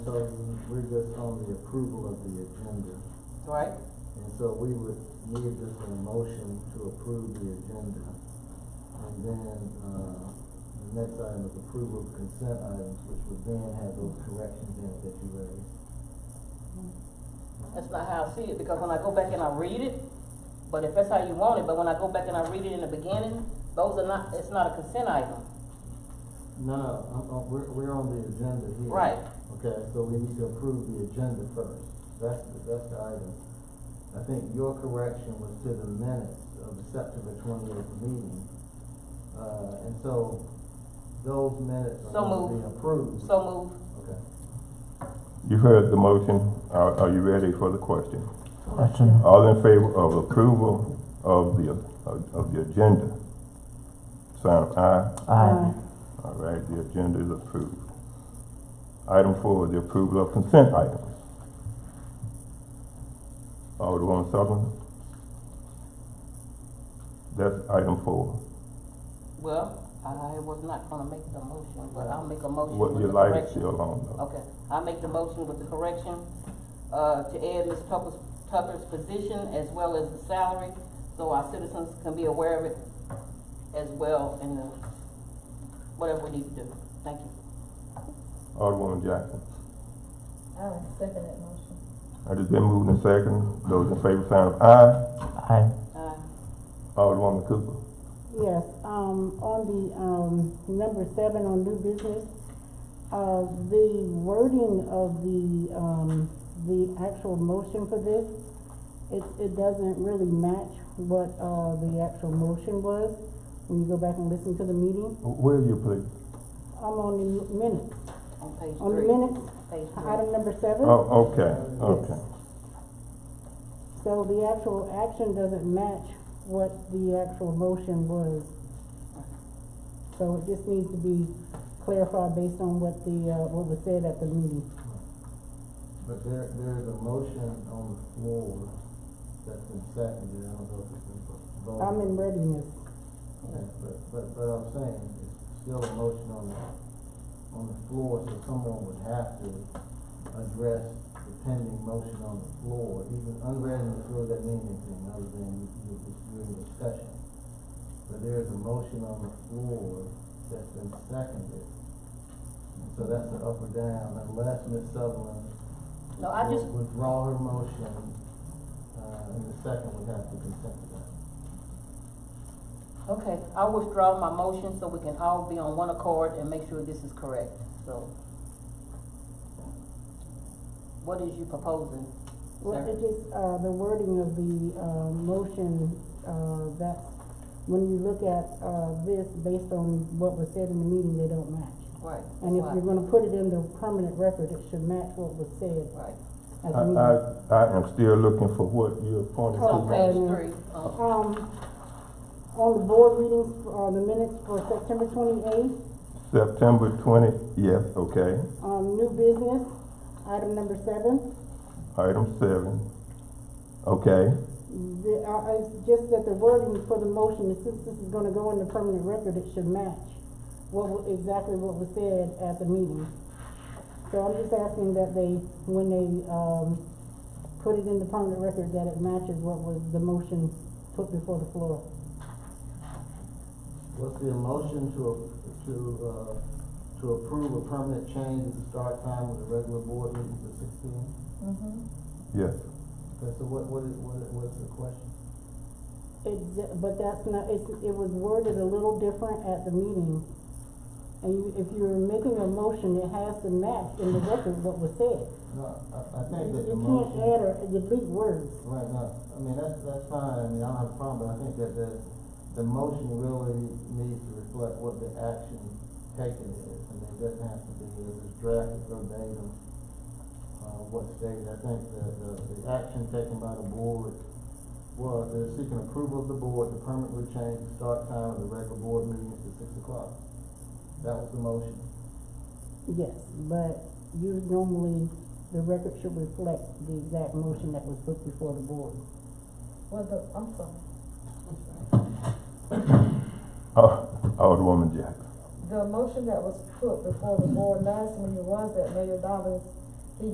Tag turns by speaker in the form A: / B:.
A: So we're just on the approval of the agenda.
B: Right?
A: And so we would need just a motion to approve the agenda. And then, uh, the next item is approval of consent items, which would then have those corrections in it that you raised.
B: That's not how I see it, because when I go back and I read it, but if that's how you want it, but when I go back and I read it in the beginning, those are not, it's not a consent item.
A: No, no, I'm- I'm- we're, we're on the agenda here.
B: Right.
A: Okay, so we need to approve the agenda first. That's, the- that's the item. I think your correction was to the minutes of the September twenty-eighth meeting. Uh, and so those minutes are
B: So
A: gonna be
B: moved.
A: approved.
B: So move.
A: Okay.
C: You heard the motion. Are, are you ready for the question?
D: Question.
C: All in favor of approval of the, of, of the agenda? Sign of aye.
D: Aye.
C: All right, the agenda is approved. Item four, the approval of consent items. Alderwoman Sutherland? That's item four.
B: Well, I was not gonna make the motion, but I'll make a motion
C: What
B: with
C: your
B: the
C: light is
B: correction.
C: still on though.
B: Okay, I make the motion with the correction, uh, to add Ms. Tucker's, Tucker's position as well as the salary, so our citizens can be aware of it as well in the, whatever we need to do. Thank you.
C: Alderwoman Jackson?
E: I would second that motion.
C: It has been moved and second. Those in favor, sign of aye.
D: Aye.
B: Uh,
C: Alderwoman Cooper?
F: Yes, um, on the, um, number seven on new business, uh, the wording of the, um, the actual motion for this, it, it doesn't really match what, uh, the actual motion was, when you go back and listen to the meeting.
C: Where are you, please?
F: I'm on the minutes,
B: on page
F: on the
B: three.
F: minutes,
B: Page three.
F: item number seven.
C: Oh, okay, okay.
F: So the actual action doesn't match what the actual motion was. So it just needs to be clarified based on what the, uh, what was said at the meeting.
A: But there, there's a motion on the floor that's been seconded. I don't know if it's been voted.
F: I'm in readiness.
A: Okay, But, but, but I'm saying, it's still a motion on the, on the floor, so someone would have to address the pending motion on the floor. Even unread on the floor doesn't mean anything other than you, you- you're in discussion. But there's a motion on the floor that's been seconded. And So that's an up or down, unless Ms. Sutherland
B: No, I just,
A: would withdraw her motion, uh, and the second would have to consent to that.
B: okay, I withdraw my motion so we can all be on one accord and make sure this is correct, so. What is you proposing,
F: Well,
B: sir?
F: it just, uh, the wording of the, uh, motion, uh, that's, when you look at, uh, this based on what was said in the meeting, they don't match.
B: Right.
F: And if
B: why-
F: you're gonna put it in the permanent record, it should match what was said
B: Right,
F: at
C: I,
F: the meeting.
C: I, I am still looking for what you appointed
B: it's on
C: to.
F: Okay.
B: page three, um,
F: Um, on the board meetings, uh, the minutes for September twenty-eighth,
C: September twenty, yes, okay.
F: um, new business, item number seven.
C: Item seven, okay.
F: The, uh, it's just that the wording for the motion, since this is gonna go in the permanent record, it should match what, wa- exactly what was said at the meeting. So I'm just asking that they, when they, um, put it in the permanent record, that it matches what was the motion put before the floor.
A: What's the motion to, to, uh, to approve a permanent change of the start time with the regular board meeting to six P M?
E: Mm-hmm.
C: Yes,
A: Okay, so what, what is, what is, what's the question?
F: It's, but that's not, it's, it was worded a little different at the meeting. And you, if you're making a motion, it has to match in the record what was said.
A: No, I, I think
F: You
A: that
F: you
A: the
F: can't
A: motion,
F: add or delete words.
A: right, no, I mean, that's, that's fine, I mean, I don't have a problem, but I think that the, the motion really needs to reflect what the action taken is. I mean, it doesn't have to be, it was drafted verbatim, uh, what stated, I think the, the, the action taken by the board was they're seeking approval of the board to permanently change the start time of the regular board meetings to six o'clock. That was the motion.
F: Yes, but you normally, the record should reflect the exact motion that was put before the board.
E: Well, the, I'm sorry,
C: Al- Alderwoman Jackson.
E: the motion that was put before the board last meeting was that Mayor Dobbins